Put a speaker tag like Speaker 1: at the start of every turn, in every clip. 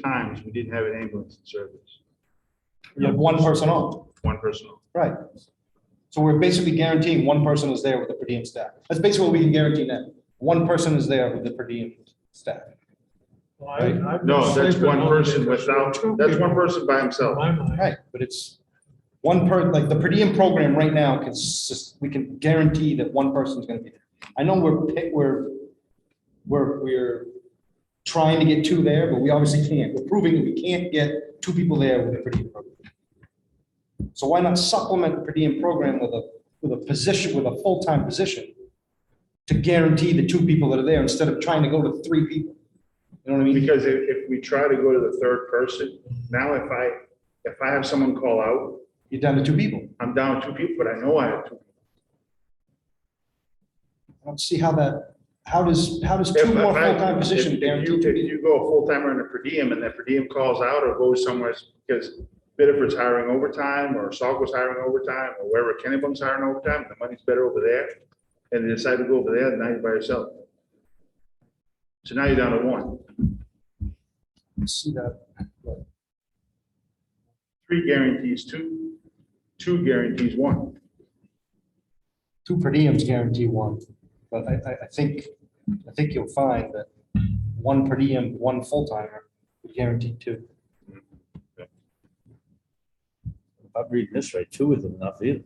Speaker 1: times, we didn't have an ambulance in service,
Speaker 2: You have one person on,
Speaker 1: one person. on.
Speaker 2: right? So we're basically guaranteeing one person is there with the per diem staff. That's basically what we can guarantee now. One person is there with the per diem staff.
Speaker 3: Well, I- I'm
Speaker 1: No, that's
Speaker 3: sleeping
Speaker 1: one
Speaker 3: on
Speaker 1: person
Speaker 3: it.
Speaker 1: without,
Speaker 3: Two
Speaker 1: that's
Speaker 3: people
Speaker 1: one person by himself.
Speaker 3: in My mind,
Speaker 2: Right, but it's one per, like the per diem program right now can, sus- we can guarantee that one person's gonna be there. I know we're, pick- we're, we're, we're trying to get two there, but we obviously can't. We're proving that we can't get two people there with the per diem program. So why not supplement the per diem program with a, with a position, with a full-time position to guarantee the two people that are there instead of trying to go to three people? You know what I mean?
Speaker 1: Because if, if we try to go to the third person, now if I, if I have someone call out,
Speaker 2: You're down to two people.
Speaker 1: I'm down two people, but I know I have two.
Speaker 2: I don't see how that, how does, how does
Speaker 1: If
Speaker 2: two more
Speaker 1: I-
Speaker 2: full-time
Speaker 1: if-
Speaker 2: positions
Speaker 1: if
Speaker 2: guarantee?
Speaker 1: you-
Speaker 2: two
Speaker 1: If
Speaker 2: people?
Speaker 1: you go full timer in a per diem and that per diem calls out or goes somewhere, it's because Biddeford's hiring overtime or Sauk's hiring overtime or wherever Kennebung's hiring overtime, the money's better over there. And they decide to go over there, now you're by yourself. So now you're down to one.
Speaker 2: I See that, but
Speaker 1: Three guarantees, two, two guarantees, one.
Speaker 2: two per diems guarantee one, but I, I, I think, I think you'll find that one per diem, one full-timer would guarantee two.
Speaker 4: If I'm reading this right, two isn't enough either.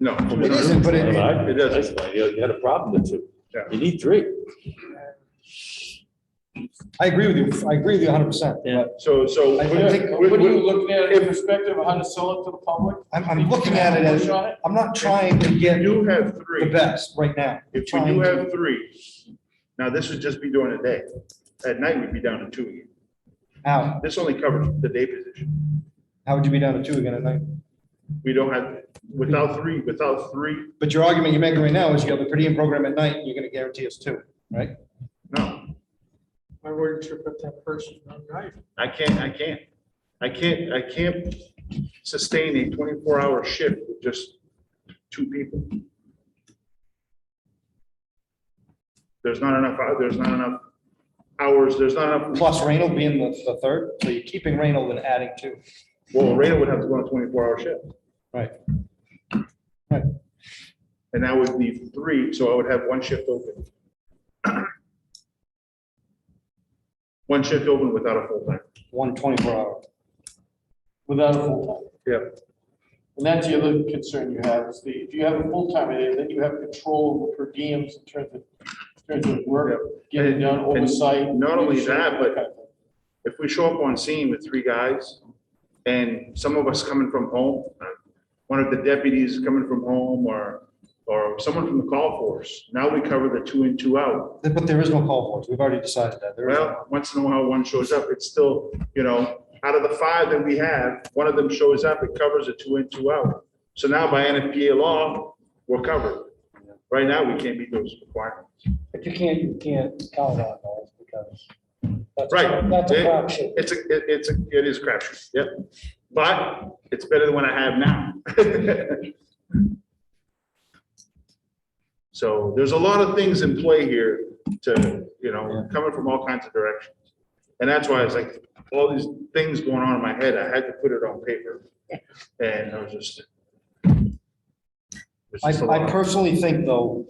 Speaker 1: No. two
Speaker 2: It
Speaker 1: times.
Speaker 2: isn't, but it- it-
Speaker 4: It doesn't. You you had a problem with two.
Speaker 1: Yeah.
Speaker 4: You need three.
Speaker 2: I agree with you, I agree with you hundred percent,
Speaker 4: Yeah.
Speaker 2: but
Speaker 1: So, so.
Speaker 2: I
Speaker 1: with-
Speaker 2: think-
Speaker 1: with-
Speaker 3: What are you
Speaker 1: with-
Speaker 3: looking at in perspective of how to sell it to the public?
Speaker 2: I'm, I'm looking at it as,
Speaker 3: Shot it?
Speaker 2: I'm not trying to get
Speaker 1: If you
Speaker 2: the
Speaker 1: have three,
Speaker 2: best right now.
Speaker 1: if we
Speaker 2: Trying
Speaker 1: do
Speaker 2: to-
Speaker 1: have three, now this would just be during the day. At night, we'd be down to two again.
Speaker 2: How,
Speaker 1: This only covers the day position.
Speaker 2: how would you be down to two again at night?
Speaker 1: We don't have, without three, without three,
Speaker 2: But your argument you're making right now is you have the per diem program at night, and you're gonna guarantee us two, right?
Speaker 1: no,
Speaker 3: Why wouldn't you put that person on night?
Speaker 1: I can't, I can't. I can't, I can't sustain a twenty-four hour shift with just two people. There's not enough, hou- there's not enough hours, there's not enough
Speaker 2: plus Reynold being the, the third, so you're keeping Reynold and adding two.
Speaker 1: Well, Rayna would have to go on a twenty-four hour shift.
Speaker 2: Right. Right.
Speaker 1: And that would be three, so I would have one shift open. One shift open without a full time.
Speaker 2: One 24 hour.
Speaker 5: Without a full-time.
Speaker 1: Yeah.
Speaker 5: And that's the other concern you have, is the, if you have a full-time, and then you have control over per diems in terms of, in terms of work, getting done oversight.
Speaker 1: not only that, but-
Speaker 5: Okay.
Speaker 1: If we show up on scene with three guys and some of us coming from home, uh, one of the deputies coming from home or, or someone from the call force, now we cover the two in, two out.
Speaker 2: But there is no call for it. We've already decided that. There is.
Speaker 1: Well, once in a while, one shows up, it's still, you know, out of the five that we have, one of them shows up, it covers a two in, two out. So now by NFPA law, we're covered. Right now, we can't meet those requirements.
Speaker 6: But you can't, you can't count on those because. that's-
Speaker 1: Right.
Speaker 6: That's a
Speaker 1: It-
Speaker 6: crapshoot.
Speaker 1: It's a, it- it's, a it is a crapshoot, yep. But it's better than what I have now. So there's a lot of things in play here to, you know, coming from all kinds of directions. And that's why it's like, all these things going on in my head, I had to put it on paper. And I was just. it's
Speaker 2: I,
Speaker 1: just a
Speaker 2: I
Speaker 1: lot.
Speaker 2: personally think though,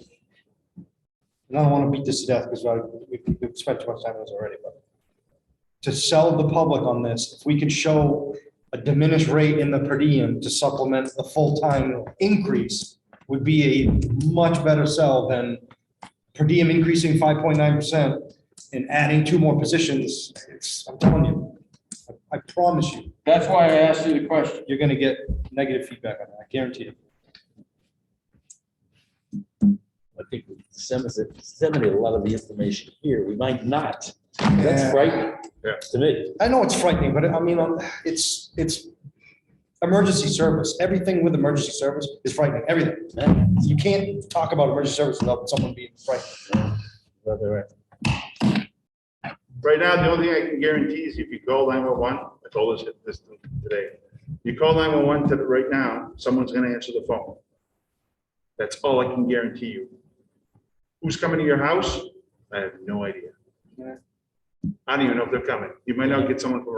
Speaker 2: and I don't want to beat this to death because we've, we've spent too much time on this already, but to sell the public on this, if we could show a diminished rate in the per diem to supplement the full-time increase would be a much better sell than per diem increasing five point nine percent and adding two more positions. It's, I'm telling you, I- I promise you,
Speaker 5: That's why I asked you the question.
Speaker 2: you're gonna get negative feedback on that, I guarantee it.
Speaker 4: I think we disseminate, disseminate a lot of the information here. We might not. That's frightening
Speaker 1: Yeah.
Speaker 4: to me.
Speaker 2: I know it's frightening, but I mean, um, it's, it's emergency service. Everything with emergency service is frightening, everything. You can't talk about emergency service without someone being frightened.
Speaker 4: Whether we're-
Speaker 1: Right now, the only thing I can guarantee is if you call nine one one, I told this this today. You call nine one one to, right now, someone's gonna answer the phone. That's all I can guarantee you. Who's coming to your house? I have no idea. I don't even know if they're coming. You might not get someone from